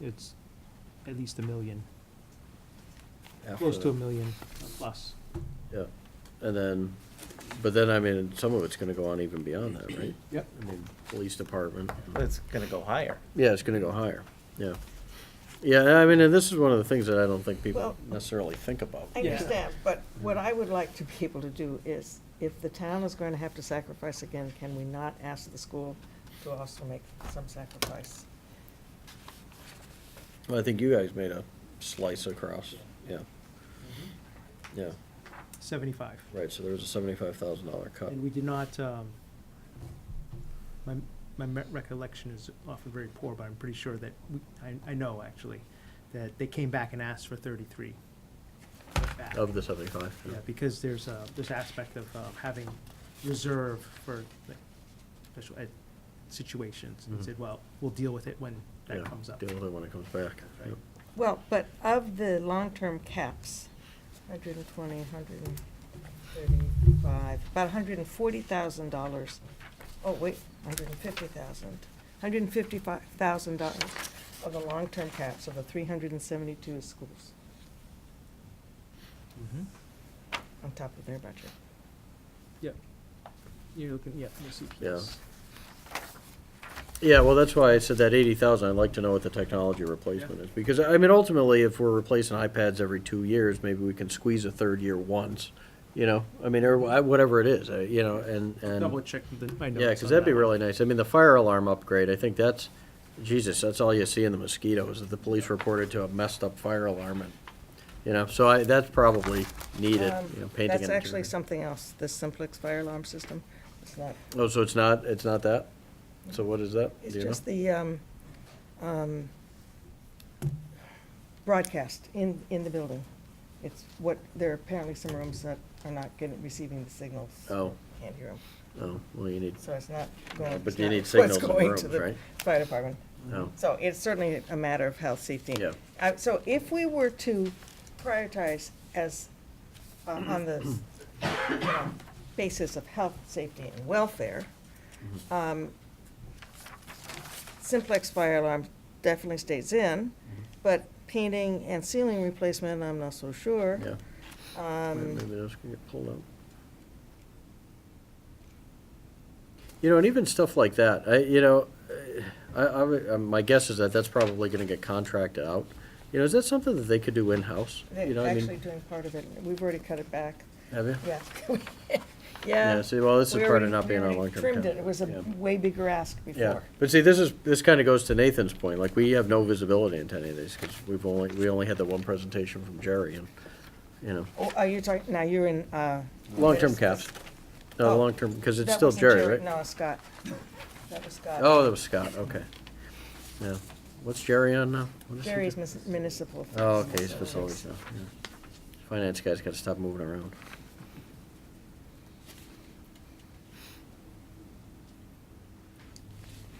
it's at least a million, after close to a that. million plus. Yeah, and then, but then, I mean, some of it's gonna go on even beyond that, right? Yep. I mean, police department. It's gonna go higher. Yeah, it's gonna go higher, yeah. Yeah, I mean, and this is one of the things that I don't think people Well- necessarily think about. I Yeah. understand, but what I would like to be able to do is, if the town is going to have to sacrifice again, can we not ask the school to also make some sacrifice? Well, I think you guys made a slice across, yeah. Mm-hmm. Yeah, Seventy-five. right, so there was a seventy-five thousand dollar cut. And we did not, um, my, my me- recollection is often very poor, but I'm pretty sure that, we- I, I know actually, that they came back and asked for thirty-three. back. Of the seventy-five, Yeah, yeah. because there's uh this aspect of um, having reserve for like, special ed situations. And Mhm. said, well, we'll deal with it when Yeah, that comes up. Deal with it when it comes back. Right. Yep. Well, but of the long-term caps, 120, 135, about $140,000, oh, wait, 150,000, $155,000 of the long-term caps of the 372 schools Mhm. on top of their budget. You're looking, yeah, the Yeah. CPS. Yeah, well, that's why I said that eighty thousand, I'd like to know what the technology replacement is, because, I mean, ultimately, if we're replacing iPads every two years, maybe we can squeeze a third year once, you know, I mean, or wha- whatever it is, uh, you know, and, and. Double check the, my notes. Yeah, because on that'd be that. really nice, I mean, the fire alarm upgrade, I think that's, Jesus, that's all you see in the mosquitoes, that the police reported to a messed up fire alarm, and, you know, so I, that's probably needed, Um, you know, painting. That's and- actually something else, the Simplex fire alarm system. It's not, Oh, so it's not, it's not that? So what is that? it's Do you know? just the um, um, broadcast in, in the building. It's what, there are apparently some rooms that are not getting, receiving the signals. Oh. Can't hear them. Oh, well, you need, So it's not going, But it's you not need what's signals in the going rooms, to the right? fire department. oh, So it's certainly a matter of health, safety. Yeah. Uh, So if we were to prioritize as, uh, on the you know, basis of health, safety, and welfare, Mm-hmm. um, simplex fire alarm definitely stays in, Mm-hmm. but painting and ceiling replacement, I'm not so sure. yeah. Um, Maybe those can get pulled out. You know, and even stuff like that, I, you know, I, I, would- uh, my guess is that that's probably gonna get contracted out. You know, is that something that they could do in-house? You They're know, I mean, actually doing part of it, we've already cut it back, Have you? yeah. Yeah. Yeah, see, well, this is We part already- of not we being on already long-term Trimmed care. it, it was a Yeah. way bigger ask Yeah, before. but see, this is, this kinda goes to Nathan's point, like, we have no visibility into any of these, cause we've only, we only had the one presentation from Jerry and, you know, Oh, are you talking, now you're in, uh. long-term this- caps. No, the Oh, long-term, cause it's that still wasn't Jerry, right? No, Scott. That was Scott. Oh, that was Scott, okay. Yeah. What's Jerry on now? What is he Jerry's do- mis- municipal. Oh, okay, he's facilities. facilities now. yeah. Finance guy's gotta stop moving around.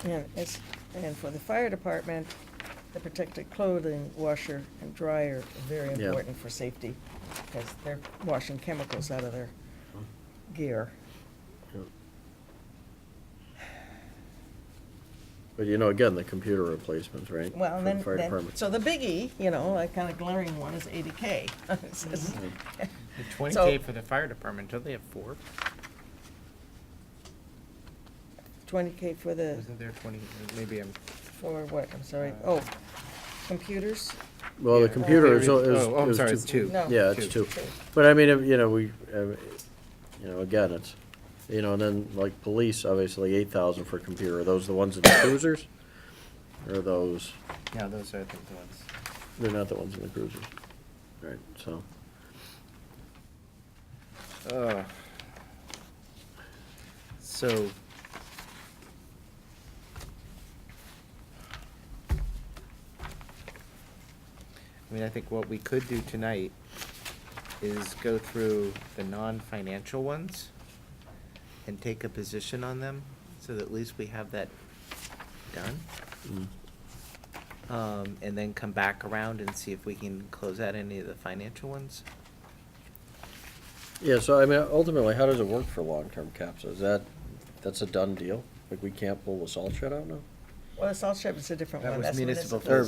And it's, and for the fire department, the protected clothing washer and dryer are very Yeah. important for safety, because they're washing chemicals out of their gear. Yeah. But you know, again, the computer replacements, right? Well, for and the then, fire then, department. so the biggie, you know, like kind of glaring one is eighty K. Mm-hmm. Twenty So- K for the fire department, don't they have four? Twenty K for the, Isn't there twenty, maybe I'm. for what, I'm sorry, Uh, oh, computers? Well, the Yeah, computer there is, is. Oh, I'm is sorry, two- it's two. No. Yeah, it's two. But I mean, if- you know, we, uh, you know, again, it's, you know, and then like police, obviously eight thousand for computer. Are those the ones in the cruisers? Or those? Yeah, those are, I think, the ones. They're not the ones in the cruisers. Right, so, Ugh. So. I mean, I think what we could do tonight is go through the non-financial ones and take a position on them, so that at least we have that done. mm, Um, and then come back around and see if we can close out any of the financial ones. yeah, so I mean, ultimately, how does it work for long-term caps? Is that, that's a done deal? Like, we can't pull the salt shed out now? Well, the salt shed is a different That one. was That's municipal Or